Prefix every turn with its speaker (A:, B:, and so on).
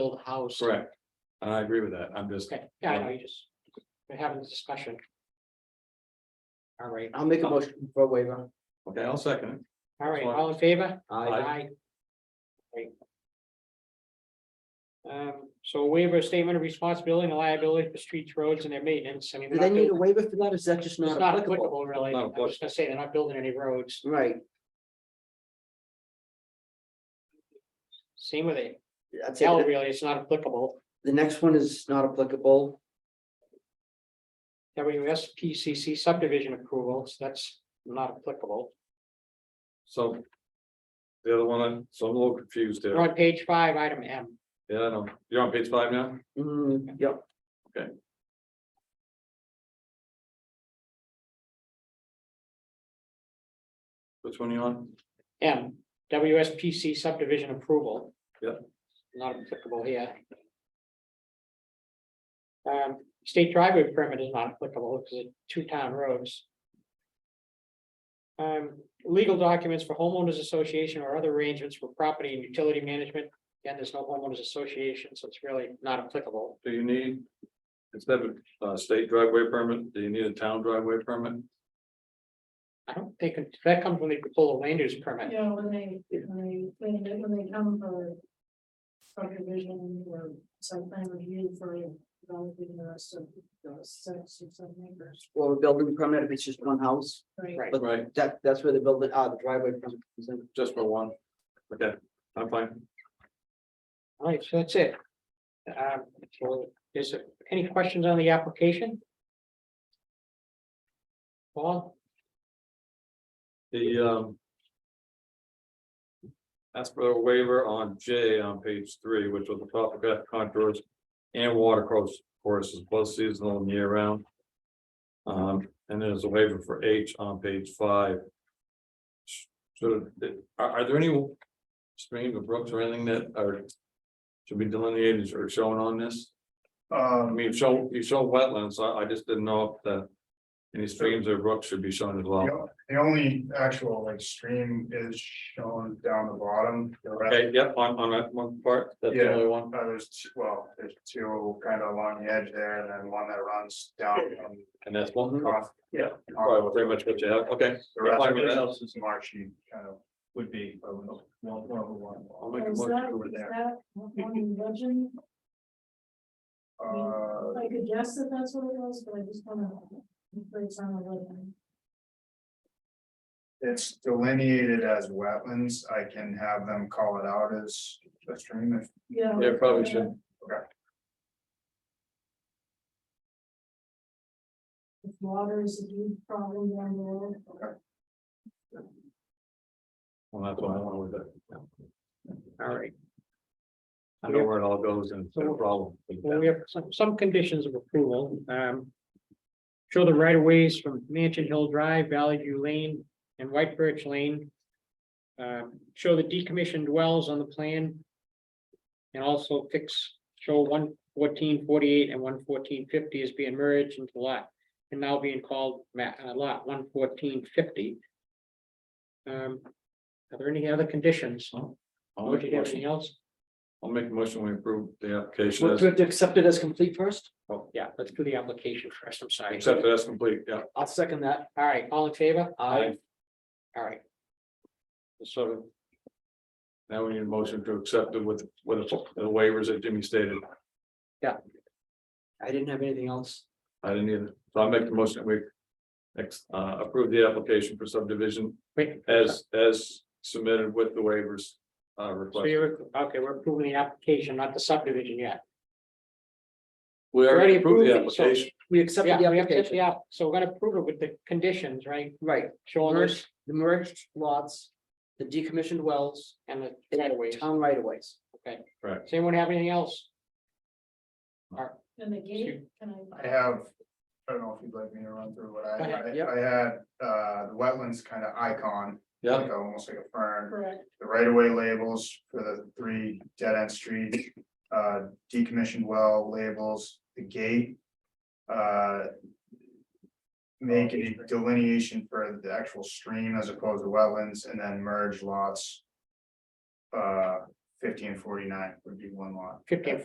A: build a house.
B: Correct. And I agree with that. I'm just,
A: Okay, yeah, I know, you just, we're having this discussion. All right,
C: I'll make a motion for a waiver. Uh,
B: okay, I'll second it.
A: all right, all in favor?
C: I,
A: Great. Um, so waiver of statement of responsibility and liability for streets, roads and their maintenance, I mean.
C: do
A: they're
C: they
A: not
C: need a
A: building-
C: waiver for that? Is that
A: It's
C: just not
A: not
C: applicable?
A: applicable, really, I
B: Not Mm.
A: was gonna say, they're not building any roads,
C: Right,
A: same with it,
C: that's
A: hell,
C: it.
A: really, it's not applicable.
C: The next one is not applicable.
A: WSPCC subdivision approvals, that's not applicable,
B: So. The other one, so I'm a little confused
A: we're
B: there.
A: on page five, item M.
B: Yeah, I know. You're on page five now?
C: Mm, yep.
B: Okay. Which one you on?
A: M, WSPC subdivision approval.
B: Yep.
A: Not applicable here. Um, state driveway permit is not applicable because it's two town roads. Um, legal documents for homeowners association or other arrangements for property and utility management. Again, there's no homeowners association, so it's really not applicable.
B: Do you need? Instead of uh state driveway permit, do you need a town driveway permit?
A: I don't think, that comes when they pull a land use permit.
D: Yeah, when they, when they, when they, when they come for. Subdivision or some plan review for developing the rest of those six or seven acres,
C: Or a building permit if it's just one house.
D: right?
A: Right.
C: But
B: Right,
C: that, that's where the building, ah, the driveway comes in.
B: just for one. Okay, I'm fine.
A: All right, so that's it. Um, so is there any questions on the application? Paul,
B: The um. Ask for a waiver on J on page three, which was the topographic contours and water course courses, both seasonal and year round. Um, and there's a waiver for H on page five. So are are there any streams or brooks or anything that are should be delineated or shown on this? I
E: Um,
B: mean, you show, you show wetlands, I I just didn't know if the any streams or brooks should be shown as well.
E: the the only actual like stream is shown down the bottom. The rest,
B: Okay, yeah, on, on that one part, that's the
E: Yeah.
B: only one,
E: uh, there's, two- well, there's two kind of along the edge there and then one that runs down. from
B: and that's one,
E: across-
B: Yeah.
E: Uh,
B: probably pretty much what you have, okay.
E: The rest
B: Fine
E: of
B: with
E: it
B: that.
E: else is marshy, kind of would be. uh, one- one of the
B: I'll
E: one.
B: make a
D: Is
B: motion.
D: that,
E: over
D: is
E: there.
D: that one legend?
E: Uh,
D: I could guess that that's what it was, but I just wanna. It's on a legend.
E: it's delineated as wetlands. I can have them call it out as a stream if
D: Yeah.
B: Yeah, probably should.
D: If water is a huge problem down there.
B: Well, that's why I went with it.
A: all right,
B: I know where it all goes and it's no problem.
A: well, we have some, some conditions of approval, um. Show the right of ways from Mansion Hill Drive, Valley View Lane and White Birch Lane. Um, show the decommissioned wells on the plan. And also fix, show one fourteen forty-eight and one fourteen fifty is being merged into lot. And now being called ma- uh, lot one fourteen fifty. Um, are there any other conditions?
B: I'll
A: Would
B: make
A: you
B: a
A: have
B: motion,
A: anything else?
B: I'll make a motion, we approve the application
C: Well,
B: as,
C: Do we have to accept it as complete first?
B: Oh.
A: Yeah, let's do the application first, I'm sorry.
B: except that's complete, yeah.
C: I'll second that.
A: All right, all in favor?
C: Aye.
A: All right,
B: Sort of. Now we need a motion to accept it with, with the waivers that Jimmy stated,
C: I didn't have anything else.
B: I didn't either, so I'll make the motion that we. Ex, uh, approve the application for subdivision
A: wait.
B: as, as submitted with the waivers, uh,
A: So
B: request.
A: you're, okay, we're approving the application, not the subdivision yet.
B: We already approved the
A: approved it, so-
B: application.
C: We accepted the
A: Yeah, we have, to-
C: application.
A: yeah, so we're gonna approve it with the conditions, right?
C: Right,
A: Showing us
C: merged, the merged lots, the decommissioned wells,
A: and the
C: and
A: right of ways.
C: town right of ways.
A: Does anyone have anything else?
D: And the gate, can I?
E: I have, I don't know if you'd like me to run through what I,
A: Go
C: ahead, yep.
E: I I had, uh, the wetlands kind of icon.
B: Yeah.
E: like a- Almost like a fern,
D: Correct,
E: the right of way labels for the three dead end streets, uh, decommissioned well labels, the gate. Uh. Make a delineation for the actual stream as opposed to wetlands and then merge lots. Uh, fifty and forty-nine would be one lot.
A: fifteen